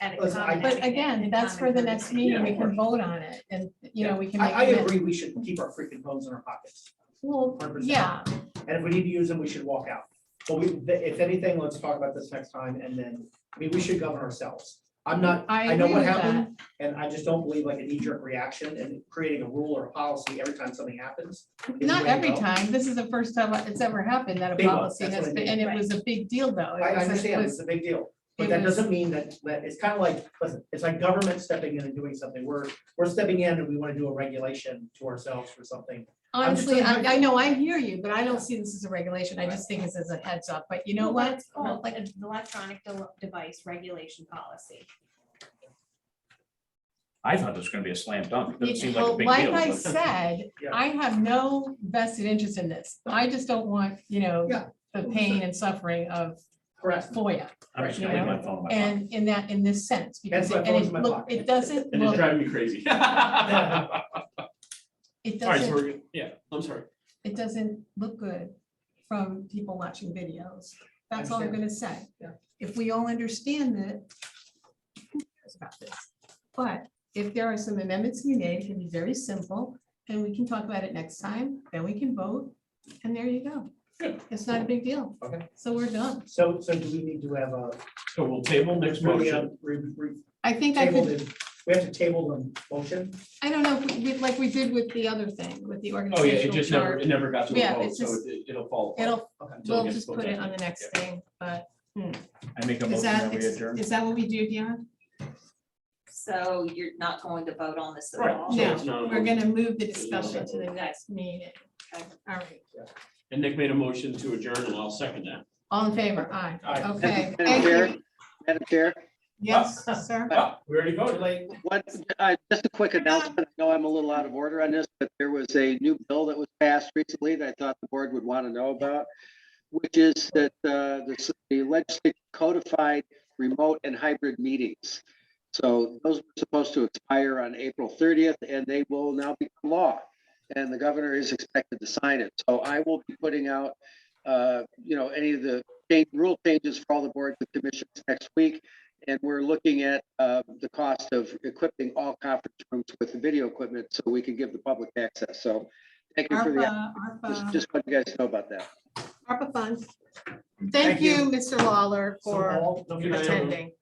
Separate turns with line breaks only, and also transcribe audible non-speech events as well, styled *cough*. and
Listen, I-
accommodate
But again,
and
that's for the next
accommodate.
meeting, we can vote on it, and, you know, we can
I,
make.
I
amendments.
agree, we should keep our freaking phones in our pockets,
Well,
100%.
yeah,
and if we need to use them, we should walk out. But we, th- if anything, let's talk about this next time, and then, I mean, we should govern ourselves. I'm not,
I
I know
agree
what
with that.
happened, and I just don't believe like a knee-jerk reaction and creating a rule or a policy every time something happens. is the way
Not
to
every
go.
time. This is the first time it's ever happened that a
Big one,
policy
that's
has
what I
been, and it was a big deal though. It
I I
was- it
understand,
was-
it's a big deal,
it
but that
was-
doesn't mean that, that, it's kind of like, listen, it's like government stepping in and doing something, we're, we're stepping in and we want to do a regulation to ourselves for something. I'm just
Honestly,
trying to-
I, I know, I hear you, but I don't see this as a regulation. I just think this is a heads up, but you know
Well,
what?
It's called like an electronic de- device regulation policy.
I thought this was gonna be a slam dunk. It doesn't seem like a
Well,
big
Like
deal.
I
but-
said,
Yeah.
I have no vested interest in this. I just don't want, you know,
Yeah.
the pain and suffering of
Correct.
FOIA
I'm just gonna leave my phone in my pocket.
and in that, in this sense, because,
That's my
it-
phone's
and it,
in my
look,
pocket.
it doesn't,
And it's
look
driving
*laughs*
me crazy. All right,
it
so
doesn't,
we're good. Yeah, I'm sorry.
it doesn't look good from people watching videos. That's all I'm gonna say.
Yeah.
If we all understand that, who cares about this? But if there are some amendments to be made, it can be very simple, and we can talk about it next time, then we can vote, and there you go.
Good.
It's not a big deal.
Okay.
So we're done.
So, so do we need to have a?
So we'll table next
we, uh,
motion.
re- re-
I think I
Table
could,
the, we have to table the motion,
I don't know, if we- we- like we did with the other thing, with the
Oh, yeah, it
organizational
just never,
chart.
it never got to
Yeah,
a vote,
it's
so
just-
it- it'll fall. apart.
It'll,
Until it
we'll
gets
just
voted
put it
on.
on the next thing, but
I make a
is
motion that
that,
we
is
adjourn.
is that what we do, Dion?
So you're not going to vote on this at
Right,
all?
so it's
No,
not a
we're
motion.
gonna move the
It's not a
discussion to the
vote.
next meeting. All right,
And Nick made a motion to adjourn and I'll second that.
all in favor, aye.
Aye.
Okay,
Madam
thank
Chair,
you.
Madam Chair,
Yes, sir.
Oh, We already voted.
like,
what, uh, just a quick announcement. I know I'm a little out of order on this, but there was a new bill that was passed recently that I thought the board would want to know about, which is that uh, the s- the legislature codified remote and hybrid meetings. So those were supposed to expire on April 30th, and they will now become law. And the governor is expected to sign it. So I will be putting out, uh, you know, any of the change- rule changes for all the boards and commissions next week. And we're looking at uh, the cost of equipping all conference rooms with the video equipment so we can give the public access. So thank you for the,
ARPA,
just-
ARPA,
just let you guys know about that.
ARPA funds.
Thank
Thank
you.
you, Mr. Lawler,
so
for
all- don't forget to-
attending.